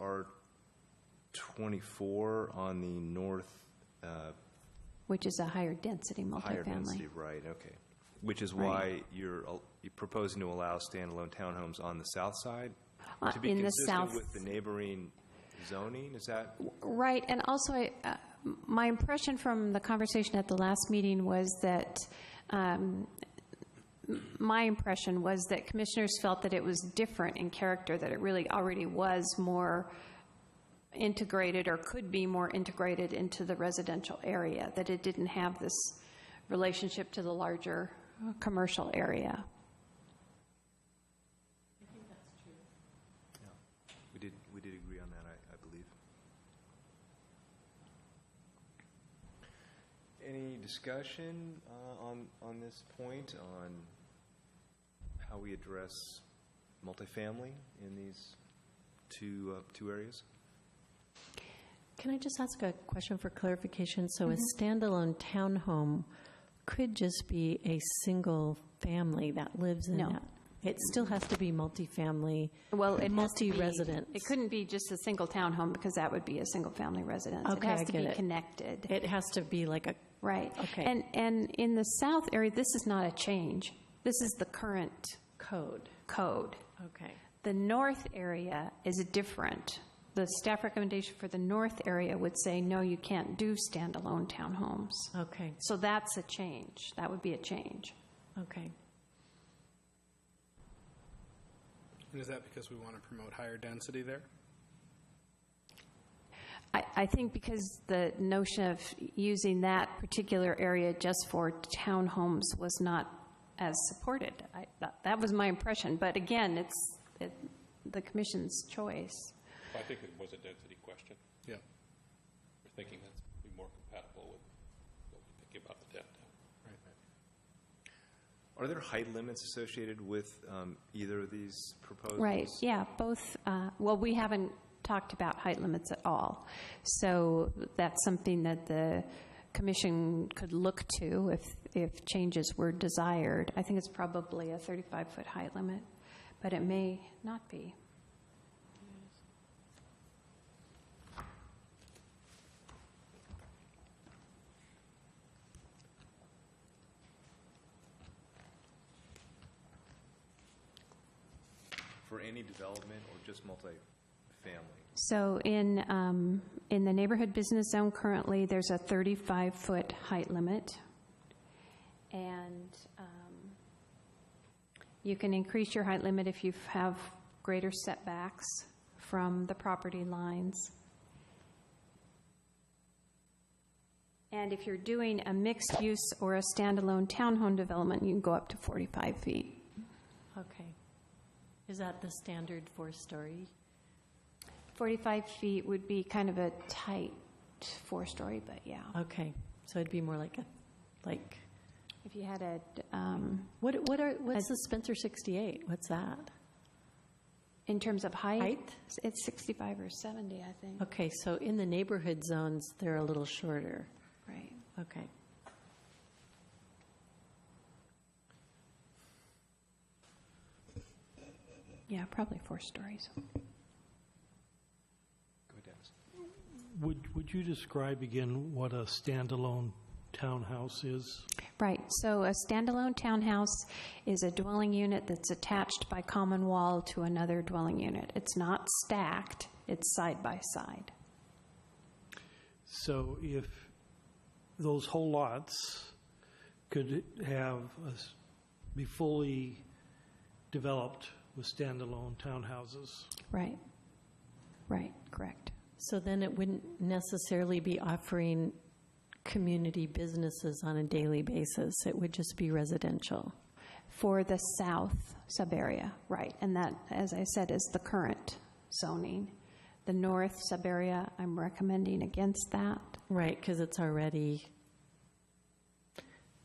R twenty-four on the north, uh, which is a higher density higher density, multifamily. right, okay. Which is why you're, al- you're proposing to allow standalone townhomes on the south side? Uh, To be in the consistent south- with the neighboring zoning, is that? Right, and also, I- uh, my impression from the conversation at the last meeting was that, um, m- my impression was that commissioners felt that it was different in character, that it really already was more integrated or could be more integrated into the residential area, that it didn't have this relationship to the larger uh, commercial area. We did, we did agree on that, I, I believe. Any discussion uh, on, on this point, on how we address multifamily in these two, uh, two areas? Can I just ask a question for clarification? So a standalone townhome could just be a single family that lives in No. that? It still has to be multifamily, Well, it has to be- multi-resident. It couldn't be just a single townhome, because that would be a single-family residence. Okay, It I has to get be it. connected, It has to be like a, right? Okay. And, and in the south area, this is not a change. This is the current Code. code. okay. The north area is different. The staff recommendation for the north area would say, no, you can't do standalone townhomes. Okay, So that's a change. That would be a change. okay. And is that because we want to promote higher density there? I, I think because the notion of using that particular area just for townhomes was not as supported. I, that, that was my impression, but again, it's, it, the commission's choice. I think it was a density question. Yeah. We're thinking that's be more compatible with what we think about the downtown. Are there height limits associated with um, either of these proposals? Right, yeah, both, uh, well, we haven't talked about height limits at all. So that's something that the commission could look to if, if changes were desired. I think it's probably a 35-foot height limit, but it may not be. For any development or just multifamily? So in, um, in the neighborhood business zone currently, there's a 35-foot height limit. And um, you can increase your height limit if you have greater setbacks from the property lines. And if you're doing a mixed-use or a standalone townhome development, you can go up to 45 feet. Okay. Is that the standard four-story? 45 feet would be kind of a tight four-story, but yeah. Okay, so it'd be more like a, like, If you had a, um, what, what are, what's the Spencer 68? What's that? in terms of height? Height? It's 65 or 70, I think, Okay, so in the neighborhood zones, they're a little shorter. right? Okay. Yeah, probably four stories. Go ahead, Dennis. Would, would you describe again what a standalone townhouse is? Right, so a standalone townhouse is a dwelling unit that's attached by common wall to another dwelling unit. It's not stacked, it's side by side. So if those whole lots could have, a s- be fully developed with standalone townhouses? Right, right, correct. So then it wouldn't necessarily be offering community businesses on a daily basis. It would just be residential. For the south subarea, right, and that, as I said, is the current zoning. The north subarea, I'm recommending against that. Right, because it's already,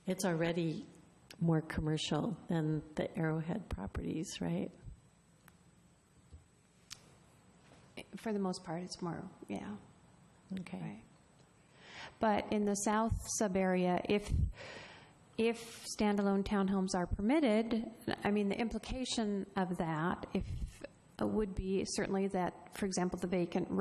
it's already more commercial than the Arrowhead properties, right? For the most part, it's more, yeah, Okay. right. But in the south sub-area, if, if standalone townhomes are permitted, I mean, the implication of that, if uh, would be certainly that, for example, the vacant